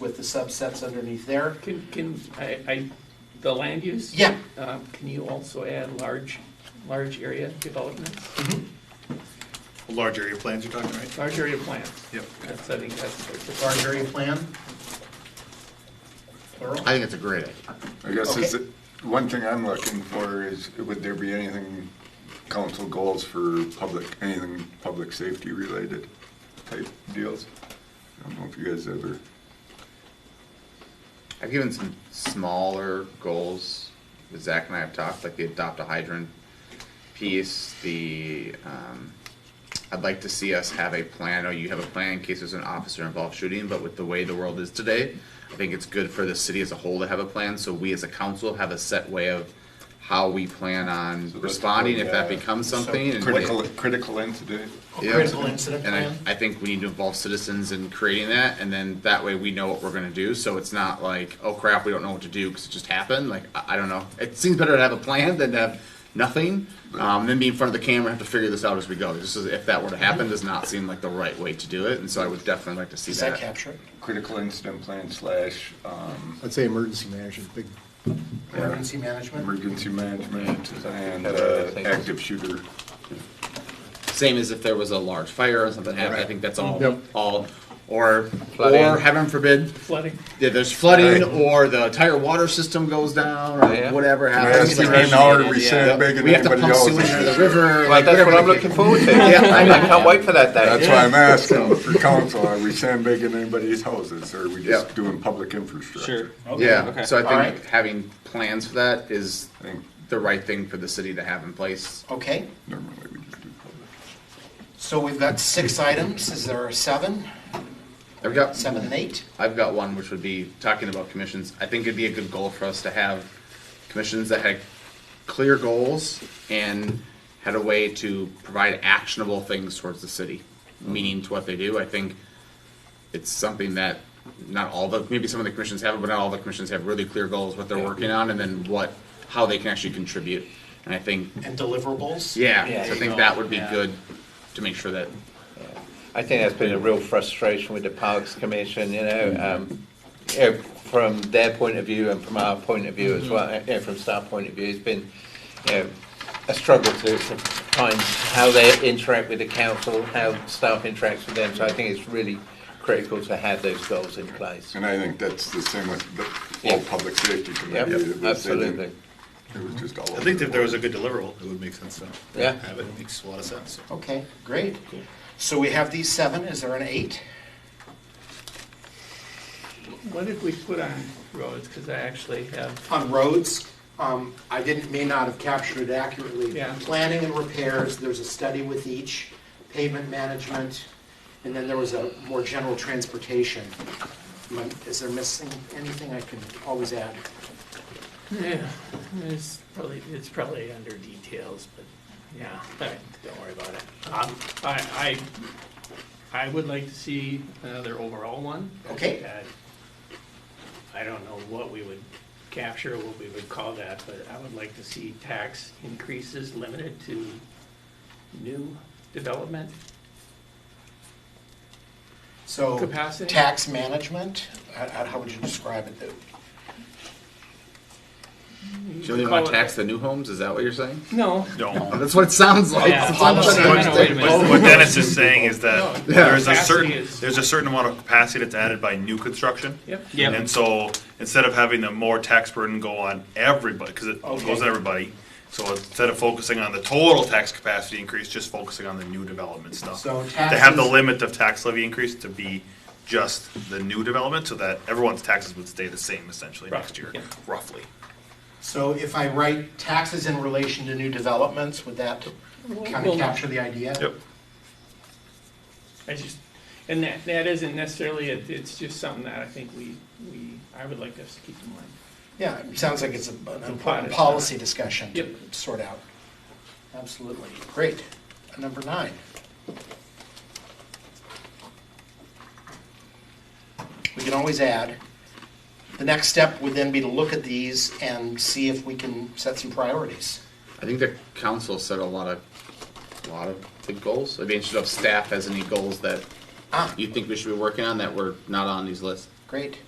with the subsets underneath there. Can, can, I, I, the land use? Yeah. Um, can you also add large, large area developments, Large area plans you're talking, right? large area plans? Yep. That's, I think that's. Large area plan. Plural. I think it's a great idea. I guess is, Okay. it- one thing I'm looking for is, would there be anything, council goals for public, anything public safety related type deals? I don't know if you guys ever, I've given some smaller goals that Zach and I have talked, like the adopt a hydrant piece, the, um, I'd like to see us have a plan, or you have a plan in case there's an officer involved shooting, but with the way the world is today, I think it's good for the city as a whole to have a plan, so we as a council have a set way of how we plan on that's responding if that what, uh, becomes something. and what- critical, critical incident, Yeah. Critical incident And plan. I, I think we need to involve citizens in creating that, and then that way we know what we're gonna do, so it's not like, oh crap, we don't know what to do, cause it just happened, like, I, I don't know. It seems better to have a plan than to have nothing, um, than be in front of the camera and have to figure this out as we go. This is, if that were to happen, does not seem like the right way to do it, and so I would definitely like to see Does that that. capture it? critical incident plan slash, um, I'd say emergency management, big, Emergency management? emergency management and, uh, active shooter. Same as if there was a large fire or something happened, I Right. think that's all, Yep. all, or, or heaven forbid, Flooding, yeah, there's flooding, Right. or the entire water system goes down, or whatever I happens. asked you right now, are we sandbagging We have to anybody pump else? sewage into the river. Well, like, that's what whatever I'm the looking case- forward to. I can't wait for that That's day. why I'm asking for council, are we sandbagging anybody's houses, or are we Yeah. just doing public infrastructure? Yeah, so All I right. think having plans for that is I think the right thing for the city to have in place. Okay, normally we just do public. so we've got six items. Is there a seven? There we go. Seven and eight? I've got one, which would be talking about commissions. I think it'd be a good goal for us to have commissions that had clear goals and had a way to provide actionable things towards the city, meaning to what they do. I think it's something that not all the, maybe some of the commissions have it, but not all the commissions have really clear goals, what they're working on, and then what, how they can actually contribute. And I think, And deliverables? yeah, so I think that would be good to make sure that I think that's been a real frustration with the Parks Commission, you know, um, you know, from their point of view and from our point of view as well, you know, from staff point of view, it's been, you know, a struggle to, to find how they interact with the council, how staff interacts with them, so I think it's really critical to have those goals in place. And I think that's the same with the whole Yeah. public safety committee. It was- Yep, they absolutely. didn't- It was just all over. I think the if there was a board. good deliverable, it would make sense to Yeah. have it, makes a lot of sense. Okay, great. So we have these seven. Is there an eight? what did we put on roads, cause I actually have, on roads, um, I didn't, may not have captured it accurately. Yeah. Planning and repairs, there's a study with each, pavement management, and then there was a more general transportation. Am I- Is there missing anything I can always add? yeah, it's probably, it's probably under details, but, yeah, all right, don't worry about it. Um, I, I, I would like to see another overall one. Okay, that, I don't know what we would capture, what we would call that, but I would like to see tax increases limited to new development. so. Capacity? Tax management, how, how how would you describe it? you only want to tax the new homes, is that what you're saying? No. That's what it Oh, sounds like. Yeah. That's all I'm trying to Wait a minute, wait a understand. minute. But what Dennis is saying is that there's a Capacity certain, is- there's a certain amount of capacity that's added by new construction. Yep. Yep. And so, instead of having the more tax burden go on everybody, because it Okay. goes on everybody, so instead of focusing on the total tax capacity increase, just focusing on the new development stuff. So To have the taxes- limit of tax levy increase to be just the new development, so that everyone's taxes would stay the same essentially next year, Right, yeah. roughly. So if I write taxes in relation to new developments, would that kind of Well- capture the idea? Yep. I just, and that, that isn't necessarily, it, it's just something that I think we, we, I would like us to keep in mind. Yeah, it sounds like it's a- an pilot, important yeah. policy discussion Yep. to sort out. Absolutely. Great. Number nine. We can always add. The next step would then be to look at these and see if we can set some priorities. I think the council set a lot of, a lot of big goals. I'd be interested if staff has any goals that Ah, you think we should be working on that were not on these lists. Great.